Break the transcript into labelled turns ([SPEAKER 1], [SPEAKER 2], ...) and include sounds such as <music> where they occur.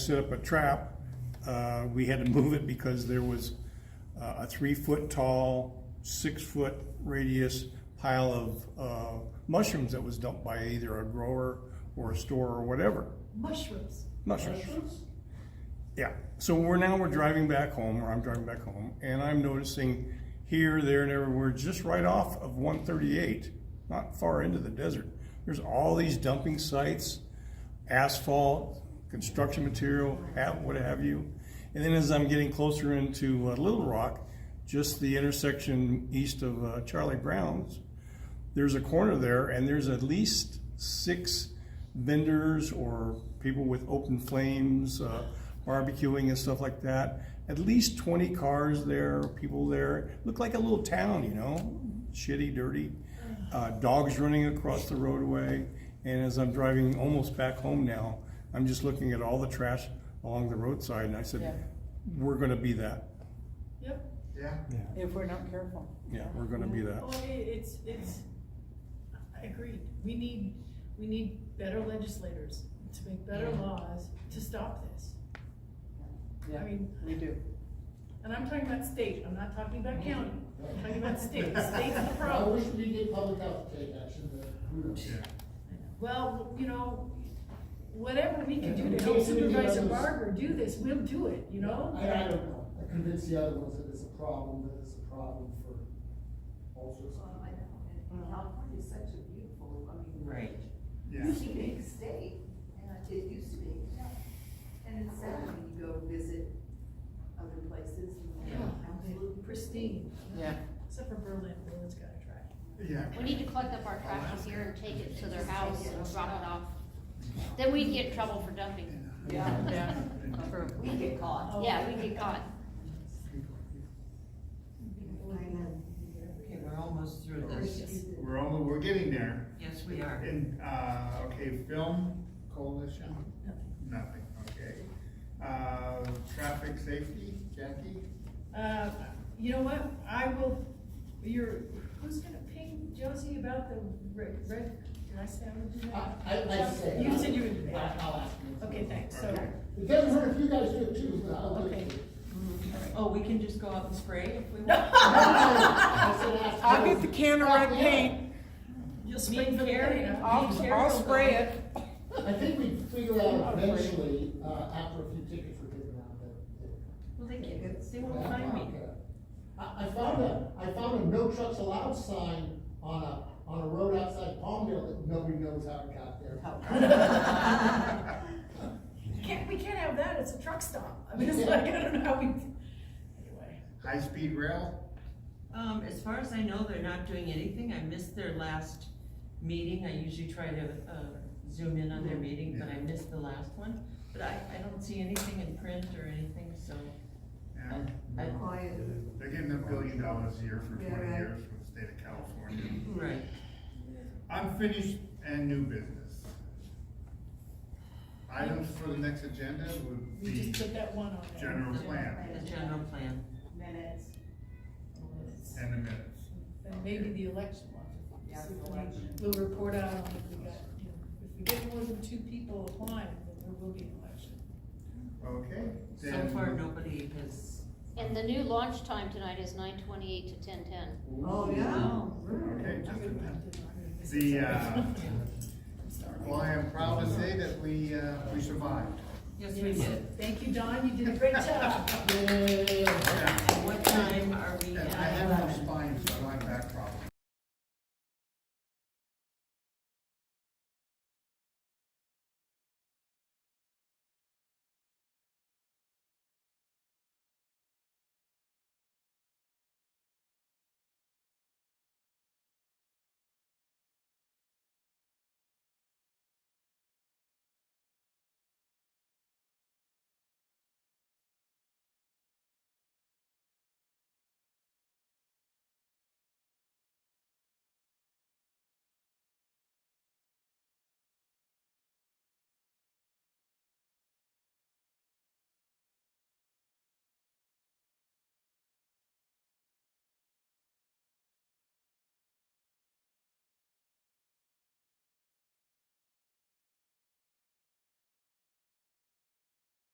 [SPEAKER 1] set up a trap. Uh, We had to move it because there was uh, a three-foot-tall, six-foot radius pile of uh, mushrooms that was dumped by either a grower or a store or whatever.
[SPEAKER 2] Mushrooms.
[SPEAKER 1] Mushrooms. Yeah, so we're now, we're driving back home, or I'm driving back home, and I'm noticing here, there, and everywhere, just right off of one thirty-eight, not far into the desert, there's all these dumping sites, asphalt, construction material, ha- what have you. And then as I'm getting closer into uh, Little Rock, just the intersection east of uh, Charlie Brown's, there's a corner there and there's at least six vendors or people with open flames uh, barbecuing and stuff like that at least 20 cars there people there looked like a little town you know shitty dirty uh, dogs running across the roadway and as i'm driving almost back home now i'm just looking at all the trash along the roadside and i said
[SPEAKER 3] Yeah.
[SPEAKER 1] we're going to be that
[SPEAKER 2] Yep.
[SPEAKER 4] Yeah.
[SPEAKER 3] if we're not careful.
[SPEAKER 1] yeah we're going to be that
[SPEAKER 2] Well, Oh, it, it's, it's, I agree, we need, we need better legislators to make better
[SPEAKER 3] Yeah.
[SPEAKER 2] laws to stop this.
[SPEAKER 3] Yeah,
[SPEAKER 2] I mean-
[SPEAKER 3] we do.
[SPEAKER 2] And I'm talking about state, I'm not talking about county, I'm talking about state, state's the
[SPEAKER 5] I wish
[SPEAKER 2] problem.
[SPEAKER 5] we did public health take action, but who knows?
[SPEAKER 2] Well, you know, whatever we can do to help Supervisor Barber do this, we'll do it, you know?
[SPEAKER 5] I, I don't know, I convince the other ones that it's a problem, that it's a problem for all sorts of.
[SPEAKER 6] Well, I
[SPEAKER 5] people.
[SPEAKER 6] know, and California's such a beautiful, I mean.
[SPEAKER 3] Right.
[SPEAKER 4] Yeah.
[SPEAKER 6] Big state, and I- it used to be, and it's sad when you go visit other places, and
[SPEAKER 2] Yeah.
[SPEAKER 6] they're absolutely pristine.
[SPEAKER 3] Yeah,
[SPEAKER 2] Except for Berlin, Berlin's gotta try.
[SPEAKER 4] Yeah.
[SPEAKER 7] We need to collect up our trash from here and take it to their house and drop it off. Then we'd get in trouble for dumping. <laughs>
[SPEAKER 3] yeah, yeah, true.
[SPEAKER 6] We get caught.
[SPEAKER 7] Yeah, we'd get caught.
[SPEAKER 8] Okay, we're almost through this.
[SPEAKER 6] Pristine.
[SPEAKER 4] We're almost, we're getting there.
[SPEAKER 8] Yes, we are.
[SPEAKER 4] And, uh, okay, film coalition? Nothing, okay. Uh, traffic safety, Jackie?
[SPEAKER 2] Uh, you know what, I will, you're, who's gonna ping Josie about the red, red, did I say I would do
[SPEAKER 5] I,
[SPEAKER 2] that?
[SPEAKER 3] Uh,
[SPEAKER 5] I, I say.
[SPEAKER 2] You said you would do
[SPEAKER 5] I-
[SPEAKER 2] that.
[SPEAKER 5] I'll ask them.
[SPEAKER 2] Okay, thanks, so,
[SPEAKER 5] It doesn't hurt if you guys do it too, <laughs> but I'll do
[SPEAKER 2] okay.
[SPEAKER 5] it.
[SPEAKER 8] Oh, we can just go out and spray
[SPEAKER 4] <laughs>
[SPEAKER 8] if we want?
[SPEAKER 5] I said ask
[SPEAKER 3] I'll
[SPEAKER 5] them.
[SPEAKER 3] get the can of red paint,
[SPEAKER 2] You'll
[SPEAKER 8] Me and Carrie, me and
[SPEAKER 3] I'll,
[SPEAKER 8] Carrie
[SPEAKER 3] I'll
[SPEAKER 8] will go.
[SPEAKER 3] spray it.
[SPEAKER 5] I think we figure out eventually, uh, after a few tickets were given out, that. that-
[SPEAKER 8] Well, they can't, they won't find me.
[SPEAKER 5] I, I found a, I found a no trucks allowed sign on a, on a road outside Palmdale that nobody knows how it got there.
[SPEAKER 2] Can't, we can't have that, it's a truck stop, I mean, it's like, I don't know how we, anyway.
[SPEAKER 4] High-speed rail?
[SPEAKER 8] Um, as far as I know, they're not doing anything. I missed their last meeting. I usually try to, uh, zoom in on their
[SPEAKER 4] Mm-hmm.
[SPEAKER 8] meeting, but I missed the last one. But I, I don't see anything in print or anything, so.
[SPEAKER 4] Yeah.
[SPEAKER 8] I- I-
[SPEAKER 6] Quiet.
[SPEAKER 4] They're getting a billion dollars a year for
[SPEAKER 6] Yeah,
[SPEAKER 4] twenty
[SPEAKER 6] right.
[SPEAKER 4] years from the state of California.
[SPEAKER 8] Right.
[SPEAKER 4] Unfinished and new business. Items for the next agenda would
[SPEAKER 2] We
[SPEAKER 4] be
[SPEAKER 2] just put that one on there.
[SPEAKER 4] general
[SPEAKER 8] The-
[SPEAKER 4] plan
[SPEAKER 8] The general plan.
[SPEAKER 6] Minutes.
[SPEAKER 4] and the minutes.
[SPEAKER 2] And maybe the election one. We'll report out on if we got, you know, if we get more than two people applying, then there will be an election.
[SPEAKER 4] Okay,
[SPEAKER 8] So
[SPEAKER 4] then.
[SPEAKER 8] far, nobody has,
[SPEAKER 7] And the new launch time tonight is nine twenty-eight to ten ten.
[SPEAKER 5] <laughs>
[SPEAKER 6] Oh, yeah.
[SPEAKER 4] Okay, just a minute.
[SPEAKER 2] This is-
[SPEAKER 4] The, uh,
[SPEAKER 2] I'm sorry.
[SPEAKER 4] well, I am proud to say that we, uh, we survived.
[SPEAKER 8] yes, we did.
[SPEAKER 2] Thank you, Don, you did a great job.
[SPEAKER 5] Yeah.
[SPEAKER 4] Yeah.
[SPEAKER 8] What time are we
[SPEAKER 4] And I
[SPEAKER 8] at?
[SPEAKER 4] have no spine.